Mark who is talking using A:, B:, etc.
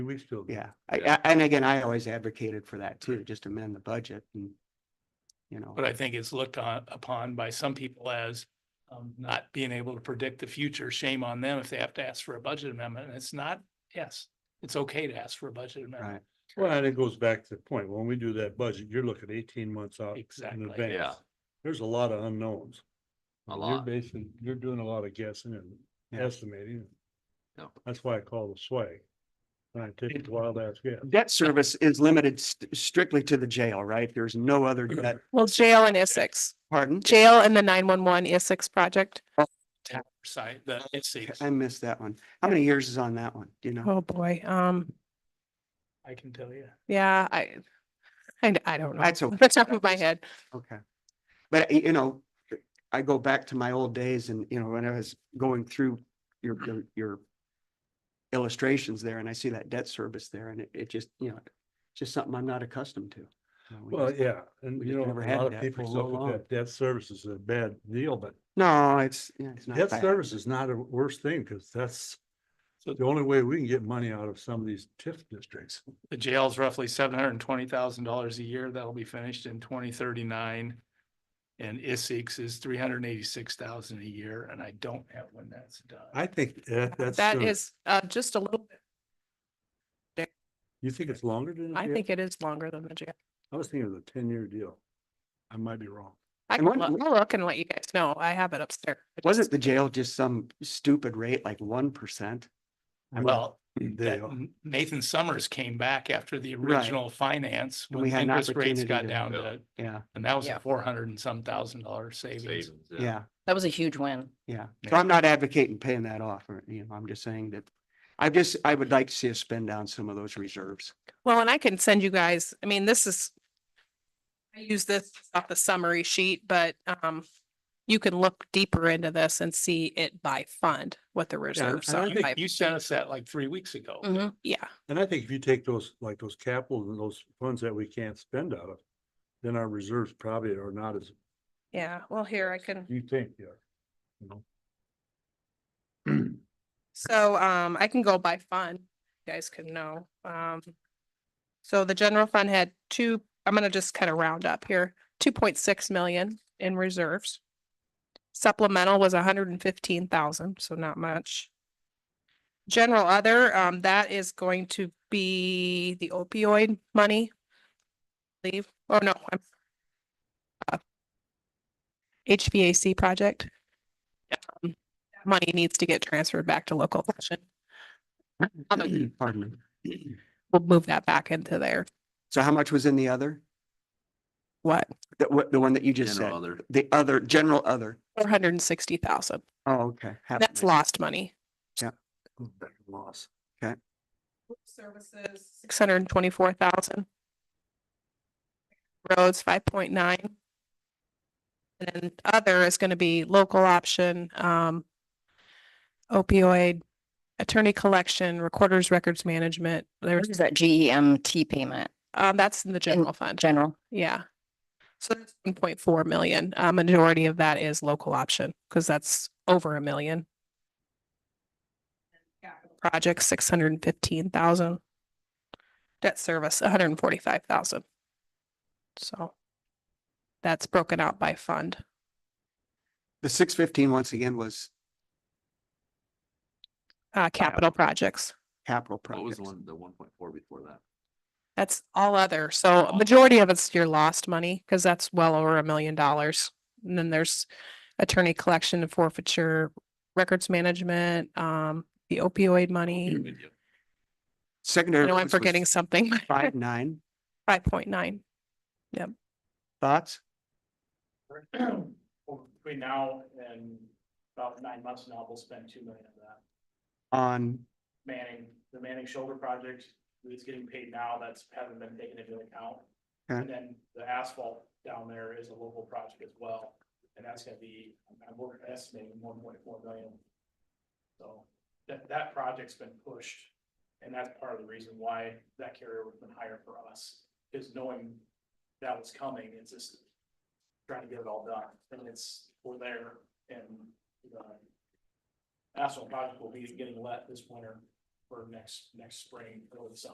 A: Two weeks till.
B: Yeah, I, I, and again, I always advocated for that too, just amend the budget and, you know,
C: But I think it's looked on, upon by some people as um, not being able to predict the future. Shame on them if they have to ask for a budget amendment. And it's not, yes, it's okay to ask for a budget amendment.
B: right?
A: Well, and it goes back to the point, when we do that budget, you're looking eighteen months out. in
C: Exactly.
A: advance.
D: Yeah.
A: There's a lot of unknowns.
D: a
A: You're
D: lot.
A: basing, you're doing a lot of guessing and
B: Yeah.
A: estimating.
D: Yeah.
A: That's why I call the swag. Scientific wild ass guess.
B: Debt service is limited st- strictly to the jail, right? There's no other debt,
E: Well, jail and Essex,
B: pardon?
E: jail and the nine one one Essex project.
C: Side, the, it's,
B: I missed that one. How many years is on that one? Do you know?
E: Oh, boy. Um,
C: I can tell you.
E: yeah, I, I, I don't know.
B: That's
E: Off
B: okay,
E: the top of my head.
B: okay. But y- you know, I go back to my old days and, you know, when I was going through your, your- your illustrations there and I see that debt service there and it, it just, you know, it's just something I'm not accustomed to. You know, we
A: Well,
B: just-
A: yeah, and
B: we
A: you
B: just
A: know,
B: never
A: a
B: had
A: lot of
B: that for
A: people
B: so
A: look at that debt service as a bad deal, but
B: No, it's, yeah, it's not
A: debt
B: bad.
A: service is not a worse thing, because that's the only way we can get money out of some of these TIF districts.
C: The jail's roughly seven hundred and twenty thousand dollars a year. That'll be finished in twenty thirty-nine. And Essex is three hundred and eighty-six thousand a year, and I don't have when that's done.
A: I think that, that's.
E: That
A: soon.
E: is, uh, just a little, bit.
A: You think it's longer than?
E: I
A: that?
E: think it is longer than the jail.
A: I was thinking it was a ten-year deal. I might be wrong.
E: I
B: And
E: can
B: one-
E: look, I'll look and let you guys know. I have it upstairs. I just-
B: Wasn't the jail just some stupid rate, like one percent?
C: Well,
A: They
C: that
A: are.
C: N- Nathan Summers came back after the
B: Right.
C: original finance,
B: And
C: when
B: we had an
C: interest rates
B: opportunity
C: got
B: to-
C: down
D: Yeah.
C: to,
B: Yeah,
C: and that was
F: Yeah.
C: a four hundred and some thousand dollar savings.
D: savings,
B: yeah,
F: That was a huge win.
B: yeah. So
C: Yeah.
B: I'm not advocating paying that off, or, you know, I'm just saying that, I just, I would like to see us spend down some of those reserves.
E: Well, and I can send you guys, I mean, this is, I use this off the summary sheet, but, um, you can look deeper into this and see it by fund, what the reserves
A: and I
E: are.
A: think
E: by- Mm-hmm,
C: You sent us that like three weeks ago.
F: Mhm.
E: Yeah,
A: And I think if you take those, like those capital and those funds that we can't spend out of, then our reserves probably are not as
E: yeah. Well, here I can.
A: you think they are.
E: So um, I can go by fund, you guys can know. Um. So the general fund had two, I'm gonna just kind of round up here, two point six million in reserves. Supplemental was hundred and fifteen thousand, so not much. General other, um, that is going to be the opioid money. Leave, oh no, I'm. uh, HVAC project money needs to get transferred back to local option. Although
B: Pardon me.
E: We'll move that back into there.
B: So how much was in the other?
E: What?
B: The, what, the one that you just said?
D: General other,
B: The other, general other?
E: Four hundred and sixty thousand.
B: Oh, okay. half of
E: That's
B: it.
E: lost money.
B: Loss.
E: Services. Six hundred and twenty-four thousand. Roads, five point nine. And then other is gonna be local option, um. Opioid, attorney collection, recorders, records management.
F: What
E: There's,
F: is that GEMT payment,
E: um, that's in the general fund.
F: general?
E: Yeah. So that's one point four million. A majority of that is local option because that's over a million. Project six hundred and fifteen thousand. Debt service, hundred and forty-five thousand. So that's broken out by fund.
B: The six fifteen, once again, was
E: Uh, capital projects.
B: capital
D: what was
B: projects.
D: the one, the one point four before that?
E: That's all other. So a majority of it's your lost money because that's well over a million dollars. And then there's attorney collection and forfeiture, records management, um, the opioid money.
D: With you.
E: I
B: Secondary.
E: know I'm
B: roads was
E: forgetting something.
B: Five nine,
E: Five point nine.
B: thoughts?
C: Between now and about nine months now, we'll spend two million of that.
B: On,
C: Manning, the Manning shoulder project, it's getting paid now, that's haven't been taken into account.
B: Okay.
C: And then the asphalt down there is a local project as well, and that's gonna be, I'm working estimating one point four million. So that, that project's been pushed, and that's part of the reason why that carrier was been higher for us, is knowing that was coming, it's just trying to get it all done, and it's, we're there, uh, and, you know, asphalt project will be getting let this winter, for next, next spring, early summer.